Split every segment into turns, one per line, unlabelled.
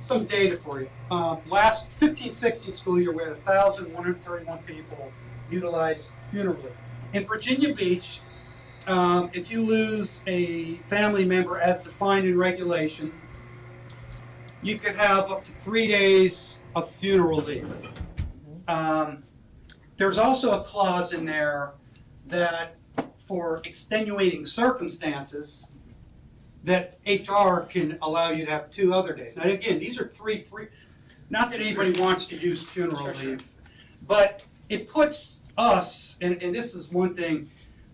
some data for you. Um, last 15, 16 school year, we had 1,131 people utilize funeral leave. In Virginia Beach, um, if you lose a family member as defined in regulation, you could have up to three days of funeral leave. Um, there's also a clause in there that for extenuating circumstances, that HR can allow you to have two other days. Now, again, these are three free, not that anybody wants to use funeral
Sure, sure.
leave, but it puts us, and, and this is one thing,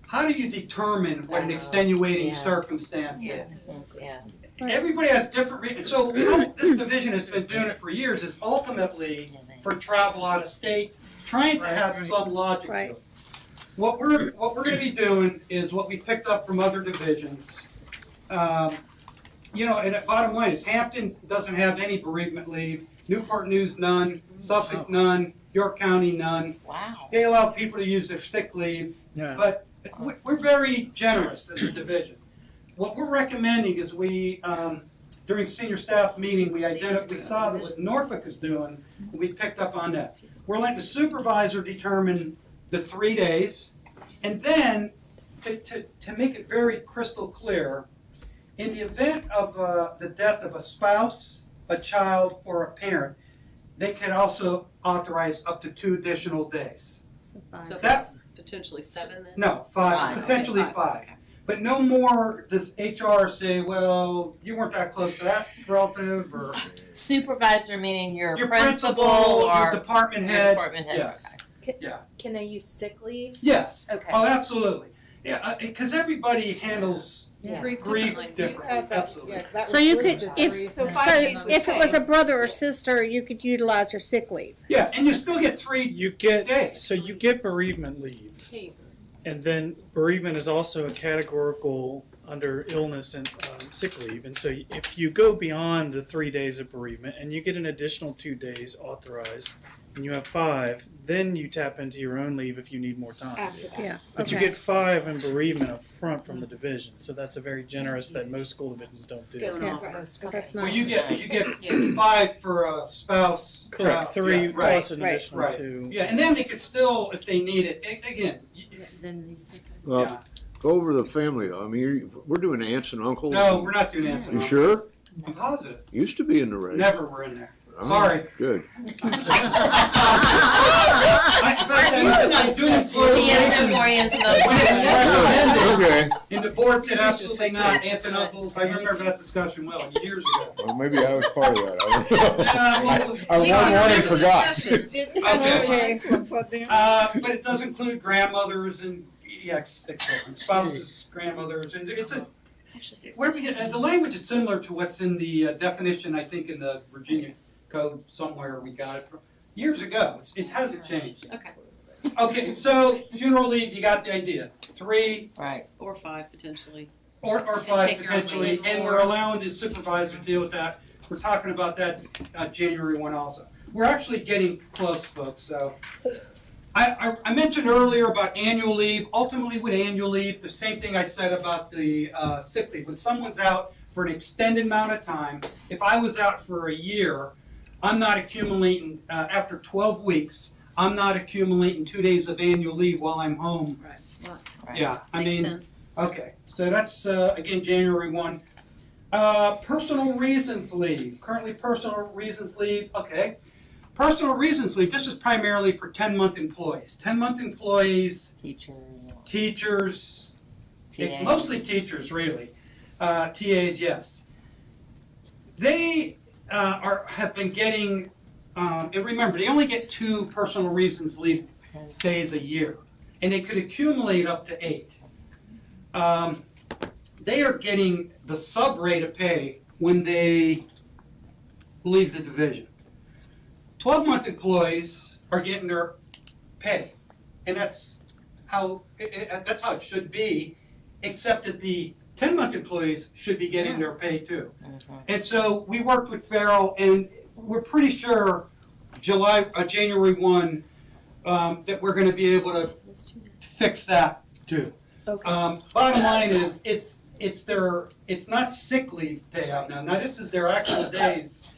how do you determine what an
Uh,
extenuating
yeah.
circumstance is?
Yes.
Yeah.
Everybody has different reasons. So how this division has been doing it for years is ultimately for travel out of state, trying to have some logic to it.
Right.
What we're, what we're gonna be doing is what we picked up from other divisions. Um, You know, and the bottom line is Hampton doesn't have any bereavement leave, Newport News none, Suffolk none, York County none.
Wow.
They allow people to use their sick leave
Yeah.
but we- we're very generous as a division. What we're recommending is we, um, during senior staff meeting, we identi, we saw that what Norfolk is doing, and we picked up on that. We're letting the supervisor determine the three days, and then, to, to, to make it very crystal clear, in the event of, uh, the death of a spouse, a child, or a parent, they can also authorize up to two additional days.
So
That-
that's potentially seven then?
No,
Five,
five,
okay,
potentially
five,
five. But no more does HR say, well, you weren't that close to that relative or
Supervisor meaning your
your
principal
principal, your
or
department
your
head.
department head,
yes.
okay.
Can they use sick leave?
Yes.
Okay.
Oh, absolutely. Yeah, because everybody handles
Yeah.
grief differently, absolutely.
So you could, if,
So
so
five days would
if it was
say.
a brother or sister, you could utilize your sick leave.
Yeah, and you still get three,
You
Day.
get, so you get bereavement leave, and then bereavement is also a categorical under illness and um, sick leave. And so if you go beyond the three days of bereavement and you get an additional two days authorized, and you have five, then you tap into your own leave if you need more time.
Yeah.
But you
Okay.
get five in bereavement up front from the division, so that's a very generous that most school divisions don't do.
Going
Yes.
off.
That's
well,
nice.
you get, you get
Yeah.
five for a spouse,
Correct,
child,
three
yeah, right.
plus an
right,
additional
right.
two.
Yeah, and then they could still, if they need it, a- again, y- y-
Well,
yeah.
go over the family. I mean, you're, we're doing aunts and uncles.
No, we're not doing answer.
You sure?
I'm positive.
Used to be in the race.
Never were in there.
Oh,
Sorry.
Good.
I, in fact, I was doing employee
He is no
relations,
more into
When it's recommended.
those.
Good. Okay.
and the board said absolutely not, aunts and uncles, I remember that discussion well, years ago.
Well, maybe I was part of that.
Uh, well,
I
Please
won one
remember the
and forgot.
discussion.
Okay. Uh, but it does include grandmothers and, yeah, ex- ex- spouses, grandmothers, and it's a, where do we get, uh, the language is similar to what's in the uh, definition, I think, in the Virginia code somewhere we got it from, years ago, it's, it hasn't changed.
Okay,
Okay, so funeral leave, you got the idea, three
Right.
or five potentially.
Or, or
And
five
take your own
potentially,
leave.
and we're allowing the supervisor to deal with that. We're talking about that, uh, January one also. We're actually getting close, folks, so. I, I, I mentioned earlier about annual leave. Ultimately, with annual leave, the same thing I said about the, uh, sick leave. When someone's out for an extended amount of time, if I was out for a year, I'm not accumulating, uh, after twelve weeks, I'm not accumulating two days of annual leave while I'm home.
Right.
Yeah, I mean.
Makes sense.
Okay, so that's, uh, again, January one. Uh, personal reasons leave, currently personal reasons leave, okay. Personal reasons leave, this is primarily for ten-month employees. Ten-month employees,
Teacher,
teachers,
TA.
mostly teachers, really. Uh, TAs, yes. They, uh, are, have been getting, um, and remember, they only get two personal reasons leave
Ten.
days a year, and they could accumulate up to eight. Um, they are getting the sub rate of pay when they leave the division. Twelve month employees are getting their pay, and that's how i i that's how it should be, except that the ten month employees should be getting their pay too.
Mhm.
And so we worked with Farrell, and we're pretty sure July, uh, January one, um, that we're gonna be able to fix that too.
Okay.
Um, bottom line is, it's, it's their, it's not sick leave day out now, now this is their actual days